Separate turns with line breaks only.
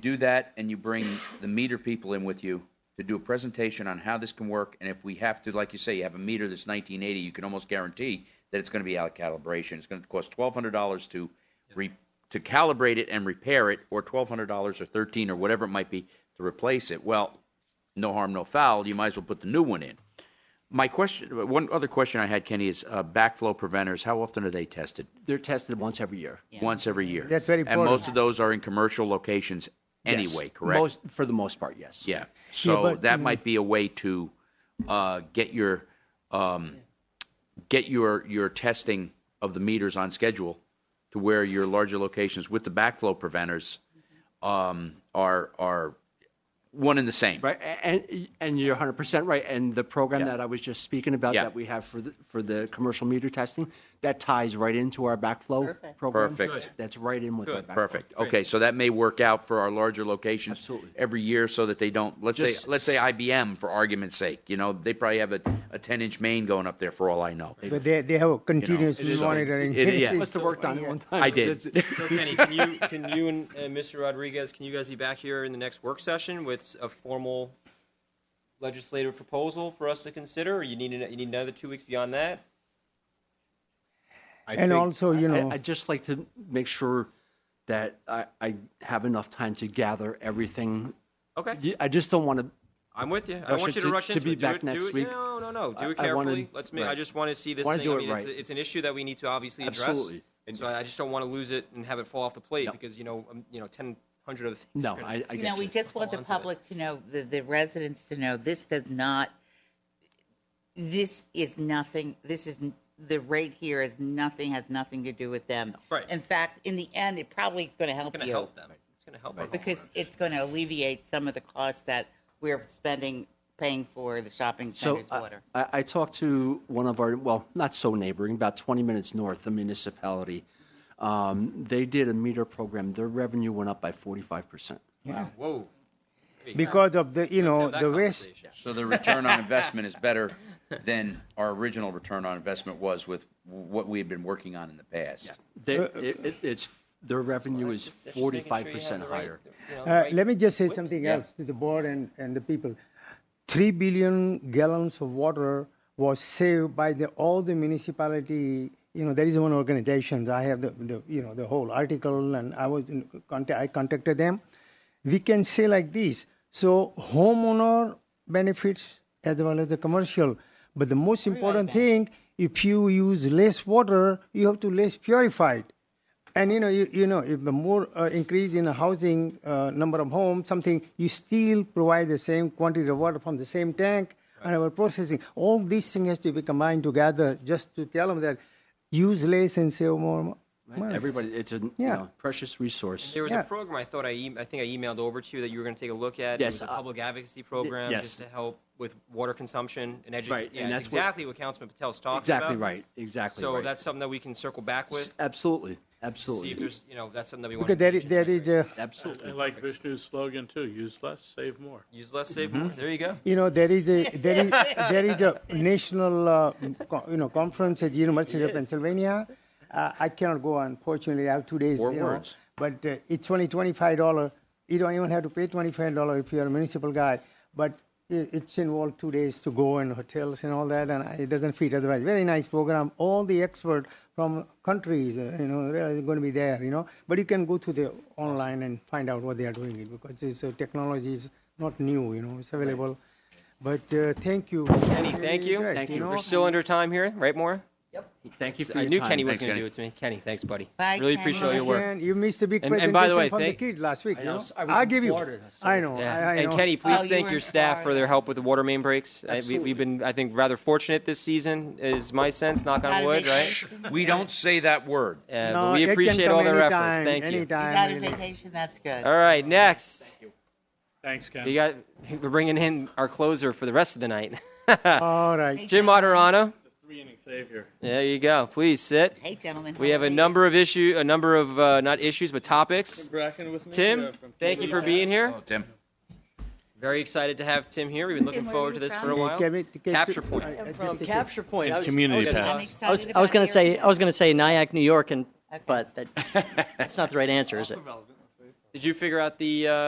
do that and you bring the meter people in with you to do a presentation on how this can work. And if we have to, like you say, you have a meter that's 1980, you can almost guarantee that it's going to be out of calibration. It's going to cost $1,200 to re, to calibrate it and repair it, or $1,200 or 13 or whatever it might be to replace it. Well, no harm, no foul. You might as well put the new one in. My question, one other question I had, Kenny, is uh, backflow preventers. How often are they tested?
They're tested once every year.
Once every year.
That's very
And
important.
most of those are in commercial locations
Yes.
anyway, correct?
Most, for the most part, yes.
Yeah. So
but,
that
mm.
might be a way to uh, get your um, get your your testing of the meters on schedule to where your larger locations with the backflow preventers um, are are one and the same.
Right, a- and, and you're 100% right. And the program that I was just speaking about
Yeah.
that we have for the, for the commercial meter testing, that ties right into our backflow program.
Perfect. Good.
That's right in with our backflow.
Perfect. Okay, so that may work out for our larger locations
Absolutely.
every year, so that they don't. Let's
Just-
say, let's say IBM for argument's sake. You know, they probably have a, a ten-inch main going up there for all I know.
But they, they have a continuous
it is-
monitoring.
it- yeah.
Must have worked on it one time.
I did.
It's-
So Kenny, can you, can you and, and Mr. Rodriguez, can you guys be back here in the next work session with s- a formal legislative proposal for us to consider, or you need, an- you need another two weeks beyond that?
I
And
think-
also, you know,
I, I'd just like to make sure that I, I have enough time to gather everything.
Okay.
Y- I just don't want to.
I'm with you.
Russia,
I don't want you to
to-
rush
to
into
be
it. Do
back
it- do
next
it-
week.
No, no, no. Do it
I- I wanna-
carefully. Let's make, I
right.
just want to see this
Wanna
thing.
do
I
it
mean, it's,
right.
a- it's an issue that we need to obviously address.
Absolutely.
And so I just don't want to lose it and have it fall off the plate
Yep.
because you know, um, you know, ten hundred other things.
No,
are gonna-
I, I
You
get
know, we
you.
just want the
Hold on to it.
public to know, the, the residents to know, this does not, this is nothing, this is, n- the rate here is nothing, has nothing to do with them.
Right.
In fact, in the end, it probably is going to help
It's going to
you.
help them. It's going to help our
Because it's going to alleviate some of the costs that we're spending, paying for the shopping
So
uh,
center's
I-
water.
I, I talked to one of our, well, not so neighboring, about 20 minutes north, a municipality. Um, They did a meter program. Their revenue went up by 45%.
homeowners. Whoa.
because of the, you know,
Have that
Oh, the waste.
conversation.
So the return on investment is better than our original return on investment was with what we had been working on in the past.
They, it, it- it's, their revenue is 45% higher.
Uh, let me just say something else to the board and, and the people. Three billion gallons of water was saved by the, all the municipality. You know, there is one organization. I have the, the you know the whole article, and I was in contact. I contacted them. We can say like this: so homeowner benefits as well as the commercial. But the most important thing, if you use less water, you have to less purify it. And you know, you, you know, if the more uh, increase in housing uh, number of homes, something, you still provide the same quantity of water from the same tank and our processing. All these things has to be combined together just to tell them that use less and save more. money.
Everybody, it's a, you
Yeah.
know, precious resource.
There was
Yeah.
a program I thought I, e- I think I emailed over to you that you were going to take a look at.
Yes,
it was a
uh,
public advocacy program
yes.
just to help with water consumption and education.
Right,
Yeah,
and
it's
that's what-
exactly what, Councilman Patel's talking about.
Exactly right, exactly
So
right.
that's something that we can circle back with.
Absolutely,
See if
absolutely,
there's, you know, that's something that we want.
Because there is, there is a,
absolutely.
I like Vishnu's slogan too, use less, save more.
Use less, save
Mm-hmm.
more. There you go.
you know, there is a, there is, there is a national, uh, co- you know, conference at University of Pennsylvania. Uh, I cannot go, unfortunately, I have two days.
Four
you know,
words.
but uh, it's only twenty-five dollar. You don't even have to pay twenty-five dollar if you're a municipal guy. But it, it's involved two days to go and hotels and all that, and I- it doesn't fit otherwise. Very nice program. All the experts from countries, uh, you know, they're going to be there. You know, but you can go to the online and find out what they are doing it because this uh, technology is not new. You know, it's available. But uh, thank you,
Kenny, thank you.
Thank you.
know?
We're still under time here, right, Maura?
Thank you for
I
your
knew
time.
Kenny was
Thanks,
going to
Kenny.
do it to me. Kenny, thanks, buddy.
Bye,
really
Kenny.
appreciate all your work.
And you missed a big
And-
presentation
and by the way,
from
thank-
the kid last week.
I
you
know,
know?
I was in
give you.
Florida, so-
I know.
Yeah.
I, I
and
know.
Kenny,
Oh,
please
you
thank
were
your
in
staff for
Florida.
their help with the water main breaks. I, we,
Absolutely.
we've been, I think, rather fortunate this season. Is my sense, knock
How
on
do
wood,
they-
right?
We don't say that word.
Uh,
No,
but we
it can
appreciate
come
all their
anytime,
efforts. Thank you.
anytime,
You got a
anytime.
vacation, that's good.
All right, next.
Thanks, Ken.
We got we're bringing in our closer for the rest of the night.
All right.
Jim Moderano.
Three inning savior.
There you go. Please sit.
Hey, gentlemen.
We have a
number.
number of issue, a number of uh, not issues but topics.
Bracken with me.
Tim, thank you for being here.
Oh, Tim.
Very excited to have Tim here. We've been looking
Tim, where
forward
are
to
you
this for a
from?
while.
Can we- can-
Capture point.
I- I just
From
think-
Capture Point. I was,
Community
I was-
pass.
I was, I was going to say, oh, I was going to say Nyack, New York, and,
Okay.
but that, that's not the right answer, is it?
Did you figure out the uh,